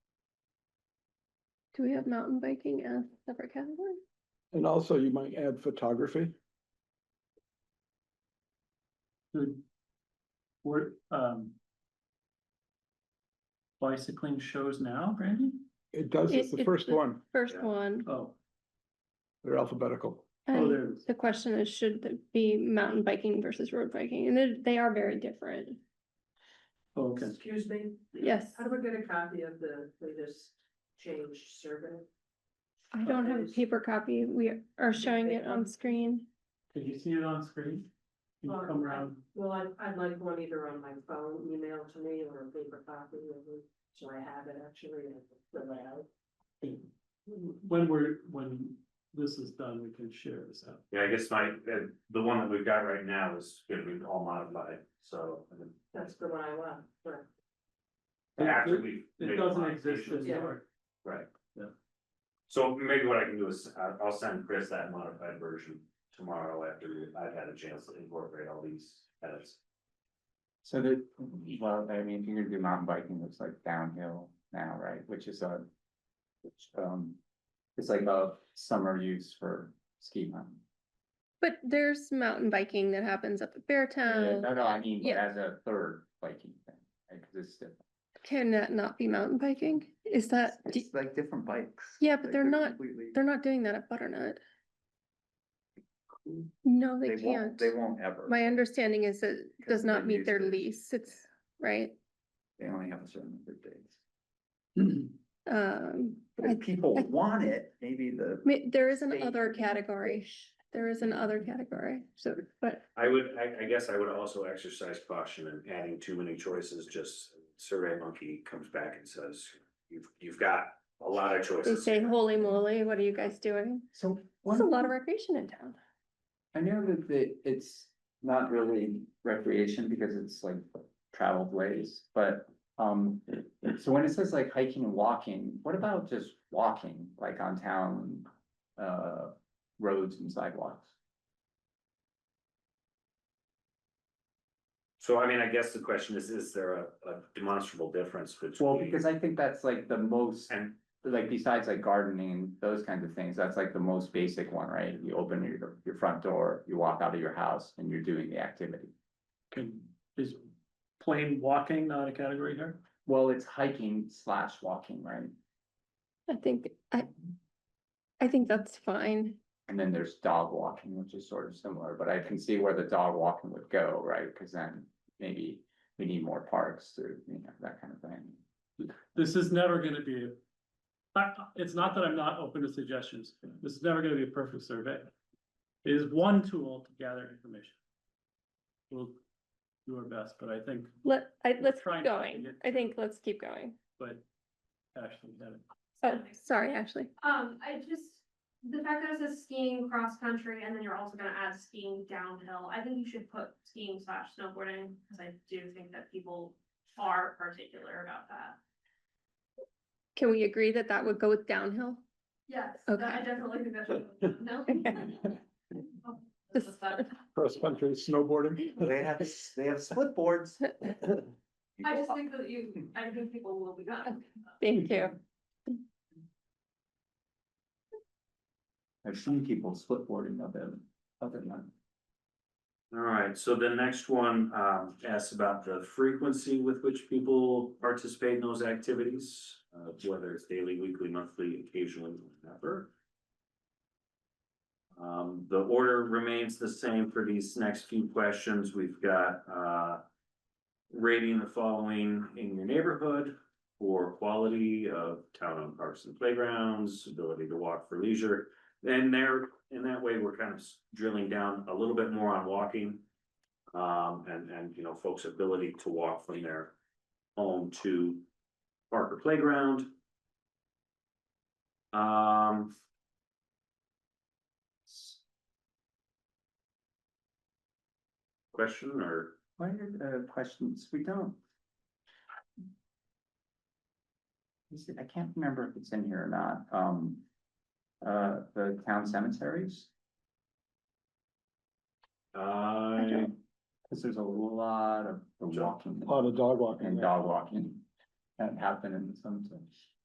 Do we have mountain biking as a separate category? And also you might add photography. Good. We're, um. Bicycling shows now, Brandy? It does, it's It- the first the one, First Yeah. one, Oh, they're alphabetical. oh, and there it is. the question is, should there be mountain biking versus road biking, and they- they are very different. Oh, Okay, Excuse me? Yes. How do I get a copy of the latest change survey? I don't have a Okay. paper copy, we are showing they it on come- screen. did you see it on screen? Can you Or- come around? Well, I, I'd like one either on my phone, email to me, or a paper copy of it, so I have it actually, and fill it out. When we're, when this is done, we can share this out. Yeah, I guess my, uh, the one that we've got right now is gonna be all modified, so. and then That's the one I want, but After we. It make doesn't exist modifications. as Yeah. our, Right. Yeah. So maybe what I can do is, I- I'll send Chris that modified version tomorrow after I've had a chance to incorporate all these edits. So the, well, I mean, if you're gonna do mountain biking, it's like downhill now, right, which is a. Which, um, it's like a summer use for ski mountain. But there's mountain biking that happens up at Beartown. No, no, I mean, Uh, yeah. as a third biking thing, right, 'cause it's different. Can that not be mountain biking? Is that, do- It's like different bikes. Uh, Yeah, but Like, they're not- completely- they're not doing that at Butternut? No, they They won't, can't. they won't ever, My understanding is that it does Because not they meet use their the- lease, it's, right? they only have a certain number of days. Um, But I- if people I- want it, maybe the. ma- there is an state other can category, there is an other category, so, but I would, I, I guess I would also exercise caution in adding too many choices, just Survey Monkey comes back and says, you've, you've got a lot of they choices. say, holy moly, what are you guys doing? So. There's a lot of recreation in town. I know that the, it's not really recreation because it's like traveled ways, but, um. So when it says like hiking and walking, what about just walking, like on town, uh, roads and sidewalks? So I mean, I guess the question is, is there a, a demonstrable difference between? Well, because I think that's like the most, And like besides like gardening, those kinds of things, that's like the most basic one, right? You open your, your front door, you walk out of your house and you're doing the activity. can, is plain walking not a category here? Well, it's hiking slash walking, right? I think, I, I think that's fine. And then there's dog walking, which is sort of similar, but I can see where the dog walking would go, right? Cause then maybe we need more parks to, you know, that kind of thing. This is never gonna be. I, it's not that I'm not open to suggestions, this is never gonna be a perfect survey. It is one tool to gather information. We'll do our best, but I think, Let, I, We're let's trying keep to going, get I think let's keep going. but Ashley had it. Oh, sorry, Ashley. Um, I just, the fact that it says skiing, cross-country, and then you're also gonna add skiing downhill, I think you should put skiing slash snowboarding, cause I do think that people are particular about that. Can we agree that that would go with downhill? Yes, that- Okay. I definitely think that's. Just- Cross country snowboarding. They have, they have split boards. I just think that you, I think people will be done. Thank you. I've seen people split boarding of them, other than that. All right, so the next one um asks about the frequency with which people participate in those activities. Uh whether it's daily, weekly, monthly, occasionally, whatever. Um, the order remains the same for these next few questions. We've got uh. Rating the following in your neighborhood for quality of town-owned parks and playgrounds, ability to walk for leisure. And there, in that way, we're kind of s- drilling down a little bit more on walking. Um, and, and, you know, folks' ability to walk from their home to park or playground. Um. Question or? Why are the questions, we don't. Is it- I can't remember if it's in here or not, um, uh, the town cemeteries? I Cause there's a lot of the walking. Lot of dog and walking. dog walking that happen in some sense.